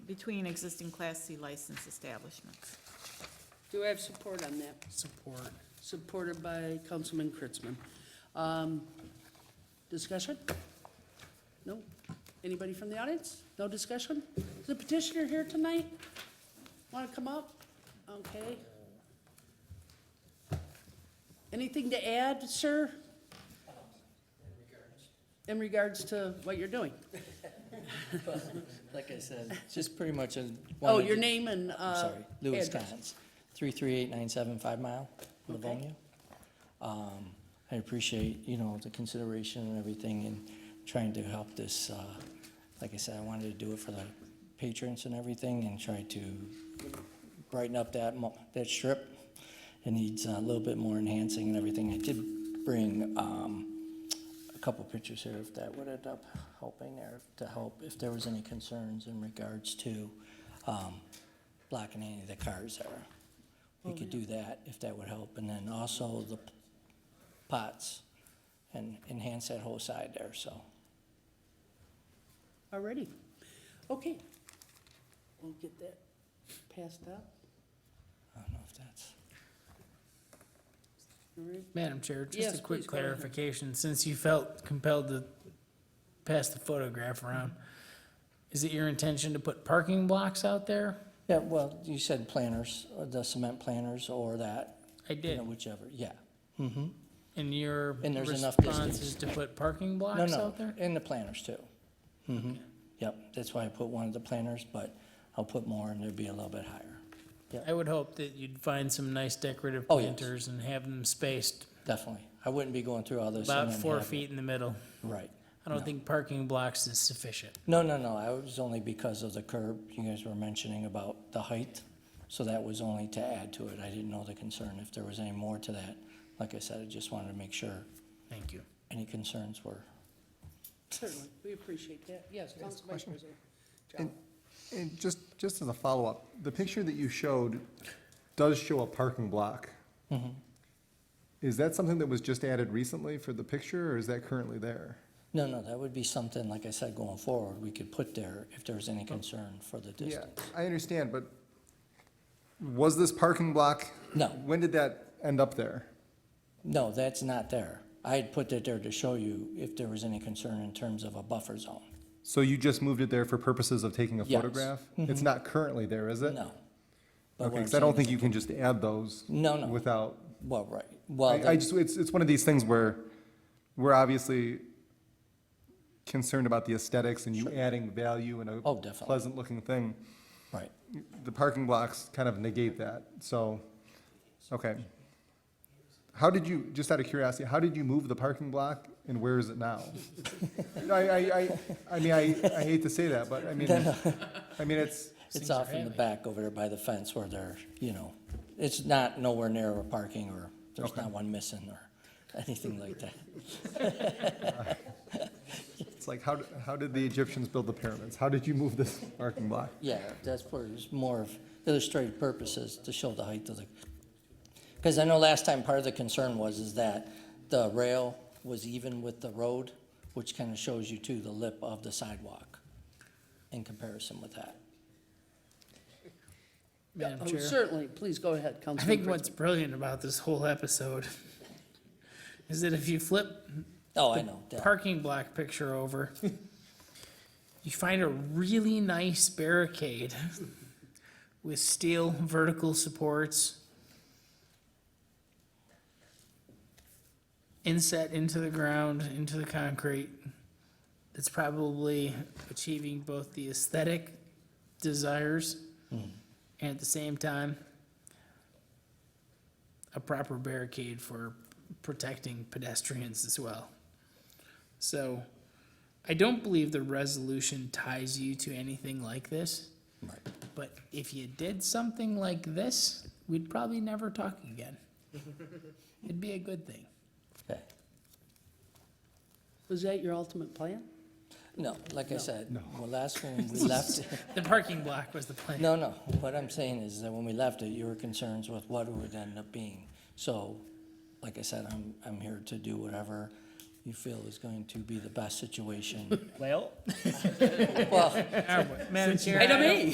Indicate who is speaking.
Speaker 1: between existing Class C license establishments.
Speaker 2: Do I have support on that?
Speaker 3: Support.
Speaker 2: Supported by Councilman Kritzman. Um, Discussion? No? Anybody from the audience? No discussion? Is the petitioner here tonight? Want to come up? Okay. Anything to add, sir? In regards to what you're doing?
Speaker 4: Like I said, just pretty much a.
Speaker 2: Oh,
Speaker 4: wanted
Speaker 2: your
Speaker 4: to-
Speaker 2: name and,
Speaker 4: I'm
Speaker 2: uh,
Speaker 4: sorry, Louis
Speaker 2: address.
Speaker 4: Collins, three three eight nine seven Five Mile,
Speaker 2: Okay.
Speaker 4: Livonia. Um, I appreciate, you know, the consideration and everything and trying to help this, uh, like I said, I wanted to do it for the patrons and everything and try to brighten up that mo- that strip. It needs a little bit more enhancing and everything. I did bring, um, a couple pictures here if that would end up helping there, to help if there was any concerns in regards to, um, blocking any of the cars there. We could do that if that would help, and then also the p- pots and enhance that whole side there, so.
Speaker 2: Already. Okay. We'll get that passed out.
Speaker 4: I don't know if that's,
Speaker 2: All right.
Speaker 3: Madam Chair,
Speaker 2: Yes,
Speaker 3: just a quick
Speaker 2: please go ahead.
Speaker 3: clarification, since you felt compelled to pass the photograph around, is it your intention to put parking blocks out there?
Speaker 4: yeah, well, you said planters, or the cement planters or that,
Speaker 3: I
Speaker 4: you
Speaker 3: did,
Speaker 4: know, whichever, yeah. Mm-hmm.
Speaker 3: and your
Speaker 4: And there's enough
Speaker 3: response
Speaker 4: distance.
Speaker 3: is to put parking
Speaker 4: No,
Speaker 3: blocks
Speaker 4: no,
Speaker 3: out there?
Speaker 4: and the planters too. hmm yep, that's why I put one of the planters, but I'll put more and it'll be a little bit higher,
Speaker 3: I would hope that you'd find some nice decorative
Speaker 4: Oh, yes.
Speaker 3: planters and have them spaced
Speaker 4: definitely. I wouldn't be going through all this. and
Speaker 3: about
Speaker 4: then
Speaker 3: four
Speaker 4: have it-
Speaker 3: feet in the middle.
Speaker 4: Right.
Speaker 3: I don't think parking blocks is sufficient.
Speaker 4: No, no, no, I was only because of the curb, you guys were mentioning about the height, so that was only to add to it, I didn't know the concern, if there was any more to that. Like I said, I just wanted to make sure
Speaker 3: Thank you.
Speaker 4: any concerns were.
Speaker 2: Certainly, we appreciate that. Yes, Council Vice President. John.
Speaker 5: And, and just, just as a follow-up, the picture that you showed does show a parking block. Mm-hmm. Is that something that was just added recently for the picture, or is that currently there?
Speaker 4: No, no, that would be something, like I said, going forward, we could put there if there was any concern for the
Speaker 5: Oh. Yeah,
Speaker 4: distance.
Speaker 5: I understand, but was this parking block?
Speaker 4: No.
Speaker 5: When did that end up there?
Speaker 4: No, that's not there. I had put that there to show you if there was any concern in terms of a buffer zone.
Speaker 5: So you just moved it there for purposes of taking a
Speaker 4: Yes. Mm-hmm.
Speaker 5: photograph? It's not currently there, is it?
Speaker 4: No. But
Speaker 5: Okay,
Speaker 4: what I'm
Speaker 5: because I don't
Speaker 4: saying
Speaker 5: think you can just add those.
Speaker 4: No, no.
Speaker 5: Without.
Speaker 4: is- Well, right, well,
Speaker 5: I, I
Speaker 4: that-
Speaker 5: just, it's, it's one of these things where we're obviously concerned about the aesthetics and you adding value and a
Speaker 4: Oh, definitely.
Speaker 5: pleasant-looking thing.
Speaker 4: right,
Speaker 5: The parking blocks kind of negate that, so, okay. How did you, just out of curiosity, how did you move the parking block and where is it now? No, I, I, I, I mean, I, I hate to say that, but I mean, I mean, it's,
Speaker 4: It's
Speaker 3: Things are
Speaker 4: off in the
Speaker 3: heavy.
Speaker 4: back over there by the fence where they're, you know, it's not nowhere near a parking or there's not one missing or anything like that.
Speaker 5: it's like, how, d- how did the Egyptians build the pyramids? How did you move this parking block?
Speaker 4: Yeah, that's for, it's more of illustrative purposes to show the height of the, because I know last time part of the concern was is that the rail was even with the road, which kind of shows you too the lip of the sidewalk in comparison with that.
Speaker 3: Madam
Speaker 2: Oh,
Speaker 3: Chair.
Speaker 2: Certainly, please go ahead,
Speaker 3: I
Speaker 2: Councilman
Speaker 3: think
Speaker 2: Kritzman.
Speaker 3: what's brilliant about this whole episode is that if you flip
Speaker 4: Oh, I know, that-
Speaker 3: parking block picture over, you find a really nice barricade with steel vertical supports inset into the ground, into the concrete. It's probably achieving both the aesthetic desires and at the same time a proper barricade for protecting pedestrians as well. So I don't believe the resolution ties you to anything like this.
Speaker 4: Right.
Speaker 3: But if you did something like this, we'd probably never talk again. It'd be a good thing.
Speaker 4: okay.
Speaker 2: Was that your ultimate plan?
Speaker 4: No, like I said, well, last one, we left,
Speaker 3: The parking block was the plan.
Speaker 4: No, no, what I'm saying is that when we left it, you were concerned with what it would end up being. So, like I said, I'm, I'm here to do whatever you feel is going to be the best situation.
Speaker 3: Well.
Speaker 4: Well,
Speaker 1: Madam Chair.
Speaker 2: Item
Speaker 1: I don't-
Speaker 2: E.